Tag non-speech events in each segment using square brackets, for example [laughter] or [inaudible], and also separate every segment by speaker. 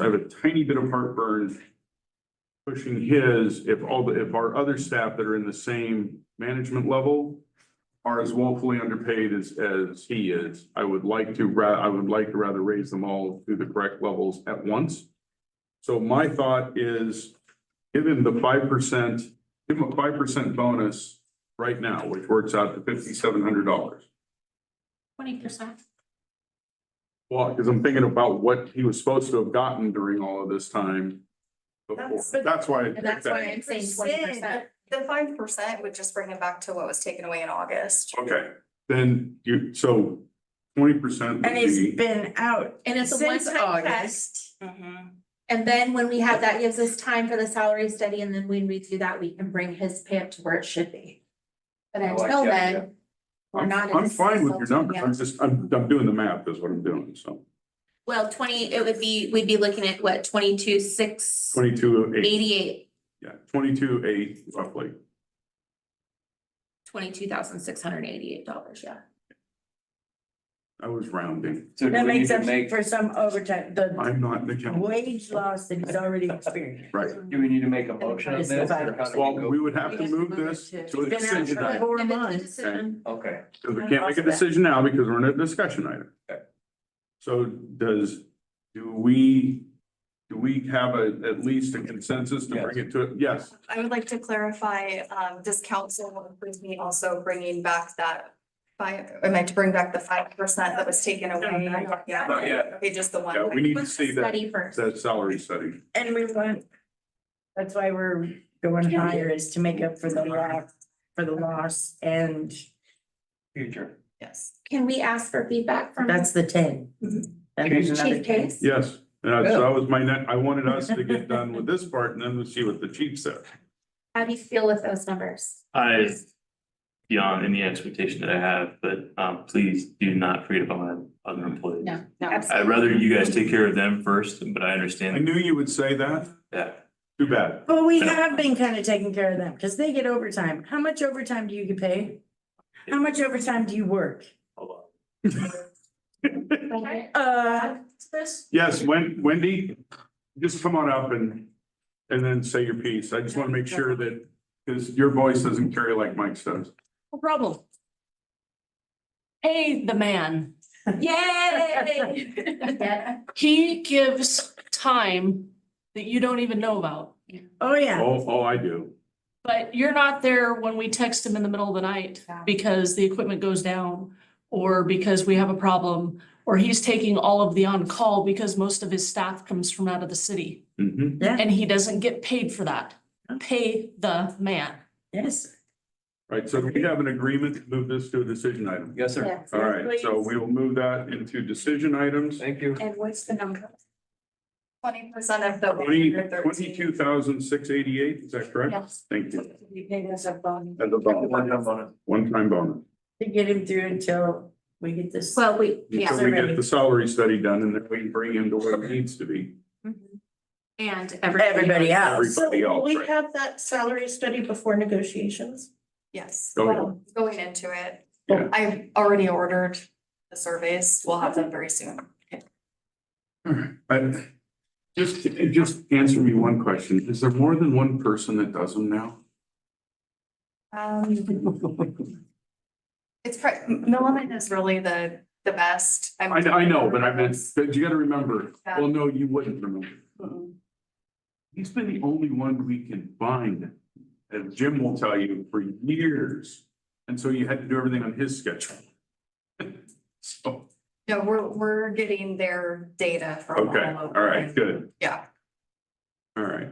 Speaker 1: I have a tiny bit of heartburn pushing his, if all the, if our other staff that are in the same management level are as woefully underpaid as, as he is, I would like to, ra- I would like to rather raise them all to the correct levels at once. So my thought is give him the five percent, give him a five percent bonus right now, which works out to fifty-seven hundred dollars.
Speaker 2: Twenty percent.
Speaker 1: Well, because I'm thinking about what he was supposed to have gotten during all of this time. Before,
Speaker 3: That's-
Speaker 1: that's why. I
Speaker 2: And that's
Speaker 1: picked
Speaker 2: why
Speaker 1: that.
Speaker 2: I'm saying twenty percent.
Speaker 3: The five percent would just bring it back to what was taken away in August.
Speaker 1: Okay, then you, so twenty percent would
Speaker 4: And he's
Speaker 1: be,
Speaker 4: been out
Speaker 2: And it's a
Speaker 4: since
Speaker 2: one-time
Speaker 4: August.
Speaker 2: test.
Speaker 1: Mm-hmm.
Speaker 2: And then when we have that, gives us time for the salary study, and then when we do that, we can bring his pay up to where it should be.
Speaker 1: Oh,
Speaker 2: But
Speaker 5: I like
Speaker 2: until
Speaker 5: that idea.
Speaker 2: then, we're
Speaker 1: I'm,
Speaker 2: not. in
Speaker 1: I'm fine with your
Speaker 2: consulting
Speaker 1: numbers,
Speaker 2: yet.
Speaker 1: I'm just, I'm, I'm doing the math is what I'm doing, so
Speaker 2: Well, twenty, it would be, we'd be looking at what, twenty-two, six,
Speaker 1: twenty-two, eight,
Speaker 2: eighty-eight,
Speaker 1: yeah, twenty-two, eight roughly.
Speaker 2: twenty-two thousand, six hundred and eighty-eight dollars, yeah.
Speaker 1: I was rounding,
Speaker 5: So do
Speaker 4: That
Speaker 5: we need
Speaker 4: makes
Speaker 5: to
Speaker 4: up
Speaker 5: make,
Speaker 4: for some overtime, the
Speaker 1: I'm not an accountant,
Speaker 4: wage loss that he's already
Speaker 5: [laughs]
Speaker 4: experienced.
Speaker 1: right?
Speaker 5: do we need to make a motion on
Speaker 4: It's
Speaker 5: this? or how do
Speaker 4: about-
Speaker 5: we
Speaker 1: Well,
Speaker 5: go-
Speaker 1: we would have to move this
Speaker 4: He's
Speaker 1: to a
Speaker 4: been out
Speaker 1: decision
Speaker 4: for
Speaker 1: item,
Speaker 4: four
Speaker 2: And it's a
Speaker 4: months.
Speaker 2: decision.
Speaker 5: Okay,
Speaker 1: because we can't make a decision now because we're in a discussion item.
Speaker 5: Okay.
Speaker 1: So does, do we, do we have a, at least a consensus to bring it to, yes,
Speaker 3: I would like to clarify, um, this council will approve me also bringing back that five, I meant to bring back the five percent that was taken away.
Speaker 2: Not
Speaker 3: Yeah.
Speaker 1: Not yet.
Speaker 3: Okay, just the one.
Speaker 1: yeah, we need to
Speaker 2: Let's
Speaker 1: see that.
Speaker 2: Study first.
Speaker 1: That salary study.
Speaker 4: And we want, that's why we're going higher is to make up for the loss, for the loss and
Speaker 5: future.
Speaker 3: Yes.
Speaker 2: Can we ask for feedback from
Speaker 4: that's the ten.
Speaker 2: Mm-hmm.
Speaker 4: And there's another
Speaker 2: Chief
Speaker 4: 10.
Speaker 2: Case?
Speaker 1: Yes, uh, so that was my net, I wanted us to get done with this part and then we'll see what the chief said.
Speaker 2: How do you feel with those numbers?
Speaker 6: I, beyond any expectation that I have, but um please do not forget about my other employees.
Speaker 2: No,
Speaker 6: I'd rather you guys take care of them first, but I
Speaker 1: I
Speaker 6: understand
Speaker 1: knew you would say that.
Speaker 6: that.
Speaker 1: Too bad.
Speaker 4: Well, we have been kind of taking care of them because they get overtime. How much overtime do you get paid? How much overtime do you work?
Speaker 2: Absolutely.
Speaker 4: Uh,
Speaker 1: Yes, Wen- Wendy, just come on up and, and then say your piece. I just want to make sure that, because your voice doesn't carry like Mike's does.
Speaker 7: No problem. Pay the man.
Speaker 2: Yay! Yeah.
Speaker 7: He gives time that you don't even know about.
Speaker 4: oh, yeah.
Speaker 1: Oh, oh, I do.
Speaker 7: But you're not there when we text him in the middle of the night
Speaker 2: Yeah.
Speaker 7: because the equipment goes down or because we have a problem, or he's taking all of the on-call because most of his staff comes from out of the city
Speaker 1: Mhm.
Speaker 7: and he doesn't get paid for that. Pay the man.
Speaker 4: Yes.
Speaker 1: Right, so we have an agreement to move this to a decision item.
Speaker 5: Yes, sir.
Speaker 2: Yes.
Speaker 1: All right, so
Speaker 4: Please.
Speaker 1: we will move that into decision items.
Speaker 5: Thank you.
Speaker 2: And what's the number?
Speaker 3: Twenty percent of the.
Speaker 1: Twenty,
Speaker 3: 113.
Speaker 1: twenty-two thousand six eighty-eight, is that correct?
Speaker 2: Yes.
Speaker 1: Thank you.
Speaker 2: You paid us a bonus.
Speaker 1: As a
Speaker 5: One
Speaker 1: bonus,
Speaker 5: time on it.
Speaker 1: one-time bonus.
Speaker 4: To get him through until we get this.
Speaker 2: Well, we, yeah,
Speaker 1: Until we get the salary study done and then we bring him to what it needs to be.
Speaker 2: and
Speaker 4: Everybody
Speaker 2: everybody.
Speaker 4: else.
Speaker 1: Everybody else, right?
Speaker 8: have that salary study before negotiations?
Speaker 3: Yes.
Speaker 1: Oh, yeah.
Speaker 3: Well, Going into it,
Speaker 1: Yeah.
Speaker 3: I've already ordered the surveys. We'll have them very soon.
Speaker 1: I- just, just answer me one question. Is there more than one person that does them now? [laughs]
Speaker 3: Um, It's, pri- Milliman is really the, the best.
Speaker 1: I, I know, but I meant, but you gotta remember, well, no, you wouldn't remember. He's been the only one we can find, as Jim will tell you, for years. And so you had to do everything on his schedule. [laughs] So,
Speaker 3: No, we're, we're getting their data from all
Speaker 1: okay,
Speaker 3: over.
Speaker 1: all right, good,
Speaker 3: Yeah,
Speaker 1: all right.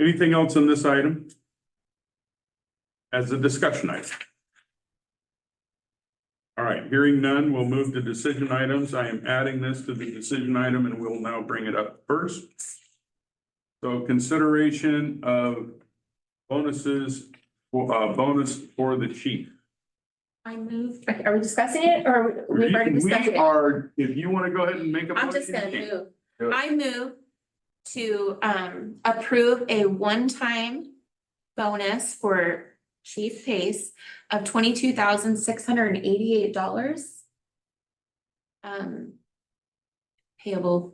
Speaker 1: Anything else on this item? As a discussion item? All right, hearing none, we'll move to decision items. I am adding this to the decision item and we'll now bring it up first. So consideration of bonuses, uh, bonus for the chief.
Speaker 2: I moved, are we discussing it or we've already discussed
Speaker 1: We
Speaker 2: it?
Speaker 1: are, if you want to go ahead and make a motion.
Speaker 2: I'm just gonna
Speaker 1: you can.
Speaker 2: move.
Speaker 5: Do it.
Speaker 2: I move to um approve a one-time bonus for Chief Pace of twenty-two thousand six hundred and eighty-eight dollars. Um. payable